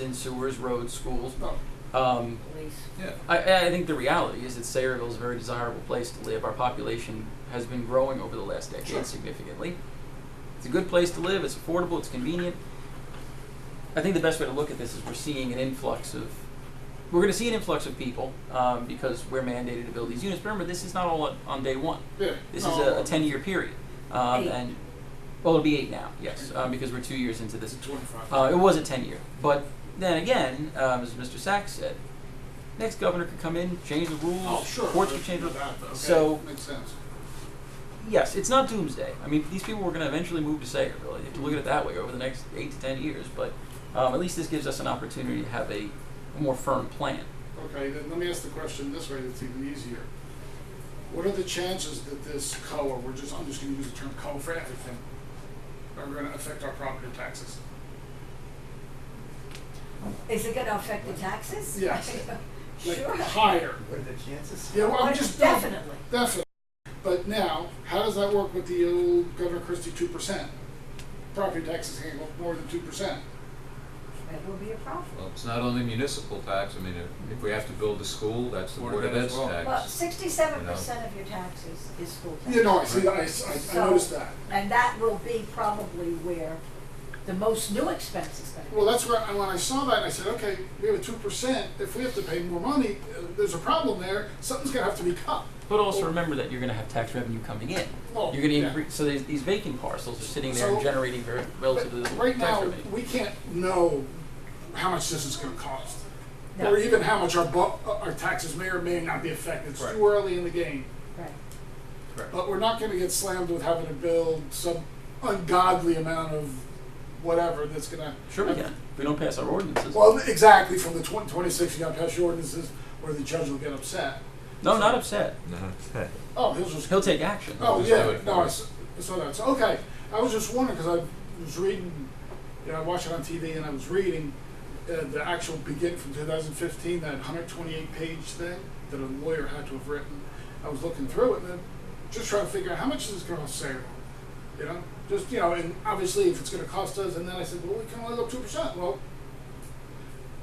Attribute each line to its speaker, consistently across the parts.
Speaker 1: in sewers, roads, schools.
Speaker 2: Well,
Speaker 1: Um,
Speaker 2: police.
Speaker 3: Yeah.
Speaker 1: I, I think the reality is that Sayreville is a very desirable place to live. Our population has been growing over the last decade
Speaker 2: Sure.
Speaker 1: significantly. It's a good place to live. It's affordable. It's convenient. I think the best way to look at this is we're seeing an influx of we're going to see an influx of people um, because we're mandated to build these units. But remember, this is not all on, on day one.
Speaker 2: Yeah.
Speaker 1: This
Speaker 2: No,
Speaker 1: is a, a ten-year period, um,
Speaker 2: Eight. Mm-hmm.
Speaker 1: and well, it'll be eight now. Yes, um, because we're two years into this
Speaker 3: It's a 25.
Speaker 1: uh, it was a 10 year. But then again, um, as Mr. Sachs said, next governor could come in, change the rules,
Speaker 3: oh, sure.
Speaker 1: courts
Speaker 3: but
Speaker 1: could change the
Speaker 3: you're not- okay,
Speaker 1: So-
Speaker 3: Makes sense.
Speaker 1: Yes, it's not doomsday. I mean, these people were going to eventually move to Sagerville. You have to look at it that way over the next 8 to 10 years. But um, at least this gives us an opportunity to have a more firm plan.
Speaker 3: Okay, then let me ask the question this way, that's even easier. What are the chances that this co, or we're just, I'm just gonna use the term co for everything, are gonna affect our property taxes?
Speaker 2: Is it gonna affect the taxes?
Speaker 3: Yes. Like,
Speaker 2: Sure.
Speaker 3: Higher.
Speaker 4: What are the chances?
Speaker 3: Yeah, well,
Speaker 2: Oh,
Speaker 3: I'm just. no,
Speaker 2: Definitely.
Speaker 3: Definitely. But now, how does that work with the old Governor Christie two percent? Property taxes can't go up more than two percent.
Speaker 2: It will be a problem.
Speaker 5: Well, it's not only municipal tax, I mean, if, if we have to build a school, that's the Board of Ed's
Speaker 6: well.
Speaker 2: Well,
Speaker 5: tax.
Speaker 2: sixty-seven percent of your taxes is school tax.
Speaker 3: You know, I see, that, I, I- I
Speaker 2: So-
Speaker 3: noticed that.
Speaker 2: And that will be probably where the most new expense is gonna
Speaker 3: Well, that's where, and when I saw that, I said, okay, we have a two percent, if we have to pay more money, uh, there's a problem there, something's gonna have to be cut.
Speaker 1: But also remember that you're going to have tax revenue coming in.
Speaker 3: Well,
Speaker 1: You're going
Speaker 3: yeah.
Speaker 1: to increase. So these these vacant parcels are sitting there and
Speaker 3: So-
Speaker 1: generating very relatively
Speaker 3: But
Speaker 1: little
Speaker 3: right
Speaker 1: tax
Speaker 3: now,
Speaker 1: revenue.
Speaker 3: we can't know how much this is gonna cost.
Speaker 2: be. No,
Speaker 3: Or even how much our bu- our taxes may or may not be affected, it's too early in the game.
Speaker 2: right.
Speaker 3: But we're not gonna get slammed with having to build some ungodly amount of whatever that's gonna.
Speaker 1: Sure, we can. We don't pass our ordinances.
Speaker 3: Well, exactly, from the twen- twenty-six, you gotta pass your ordinances, or the judge will get upset.
Speaker 1: no, not upset.
Speaker 5: Uh-huh.
Speaker 3: Oh, he'll just
Speaker 1: He'll take action.
Speaker 3: Oh,
Speaker 5: Just do
Speaker 3: yeah,
Speaker 5: it
Speaker 3: no,
Speaker 5: for
Speaker 3: I
Speaker 5: us.
Speaker 3: s- I saw that. So, okay, I was just wondering, because I was reading, you know, I watched it on TV and I was reading uh, the actual begin from 2015, that 128 page thing that a lawyer had to have written. I was looking through it and then just trying to figure out how much is this going to save? You know, just, you know, and obviously if it's going to cost us, and then I said, well, we can only go 2%. Well,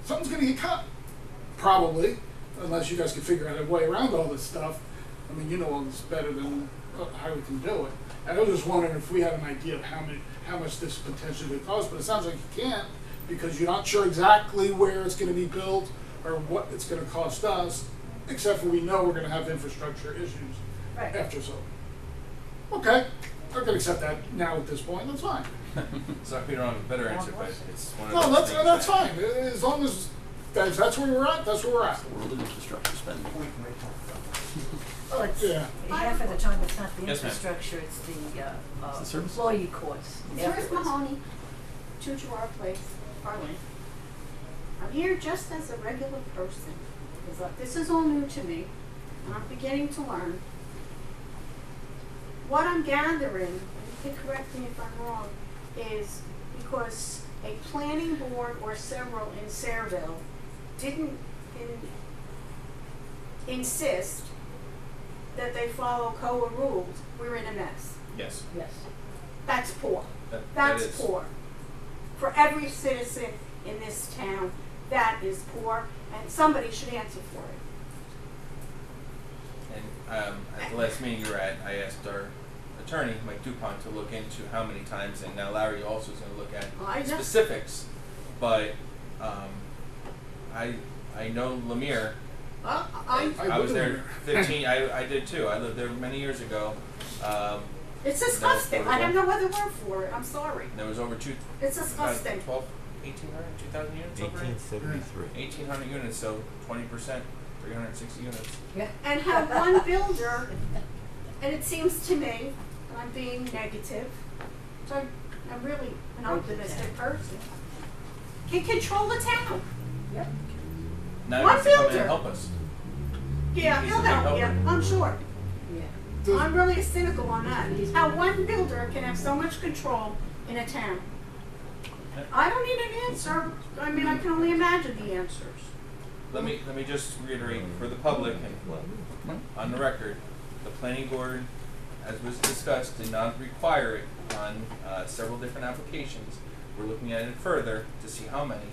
Speaker 3: something's going to get cut, probably, unless you guys can figure out a way around all this stuff. I mean, you know all this better than uh, how we can do it. And I was just wondering if we had an idea of how many, how much this potentially could cost, but it sounds like you can't because you're not sure exactly where it's going to be built or what it's going to cost us, except for we know we're going to have infrastructure issues
Speaker 2: Right.
Speaker 3: after so. Okay, I can accept that now at this point. That's fine.
Speaker 6: So we don't have a better answer, but it's one of
Speaker 3: No,
Speaker 6: those
Speaker 3: that's
Speaker 6: things
Speaker 3: that's
Speaker 6: that-
Speaker 3: fine. As long as that's, that's where we're at, that's where we're at.
Speaker 1: World of infrastructure spending.
Speaker 4: We can wait till-
Speaker 2: Well,
Speaker 3: Yeah.
Speaker 2: it's, half of the time, it's not the
Speaker 6: Yes, ma'am.
Speaker 2: infrastructure, it's the, uh, uh,
Speaker 1: the service.
Speaker 2: employee courts.
Speaker 7: First
Speaker 2: afterwards.
Speaker 7: Mahoney, two to our place, Harlan. I'm here just as a regular person, because uh, this is all new to me, and I'm beginning to learn. What I'm gathering, and you can correct me if I'm wrong, is because a planning board or several in Sayreville didn't in- insist that they follow COA rules, we're in a mess.
Speaker 6: Yes.
Speaker 2: Yes.
Speaker 7: That's poor.
Speaker 6: That, that
Speaker 7: That's
Speaker 6: is-
Speaker 7: poor. For every citizen in this town, that is poor, and somebody should answer for it.
Speaker 6: And um, at the last meeting you were at, I asked our attorney, Mike Dupont, to look into how many times, and now Larry also is going to look at
Speaker 7: I know.
Speaker 6: specifics, but um, I I know Lemire.
Speaker 7: Uh, I,
Speaker 3: I
Speaker 6: was
Speaker 3: live in
Speaker 6: there 15. I, I did too. I lived there many years ago. Um,
Speaker 7: it's disgusting. I have no other word for it. I'm sorry.
Speaker 6: there was over two,
Speaker 7: It's
Speaker 6: about
Speaker 7: disgusting.
Speaker 6: 12, 1,800, 2,000 units over there?
Speaker 4: 1873.
Speaker 6: 1,800 units, so 20%, 360 units.
Speaker 2: Yeah.
Speaker 7: And have one builder, and it seems to me, and I'm being negative, so I'm- I'm really an optimistic person, can control the town.
Speaker 2: Yep.
Speaker 6: Now
Speaker 7: One
Speaker 6: he wants to come in
Speaker 7: builder.
Speaker 6: and help us.
Speaker 7: Yeah,
Speaker 6: He's
Speaker 7: he'll
Speaker 6: a big
Speaker 7: help you,
Speaker 6: helper.
Speaker 7: I'm sure.
Speaker 2: Yeah.
Speaker 7: I'm really cynical on that. How one builder can have so much control in a town. I don't need an answer. I mean, I can only imagine the answers.
Speaker 6: Let me, let me just reiterate for the public and on the record, the planning board, as was discussed, did not require it on uh, several different applications. We're looking at it further to see how many.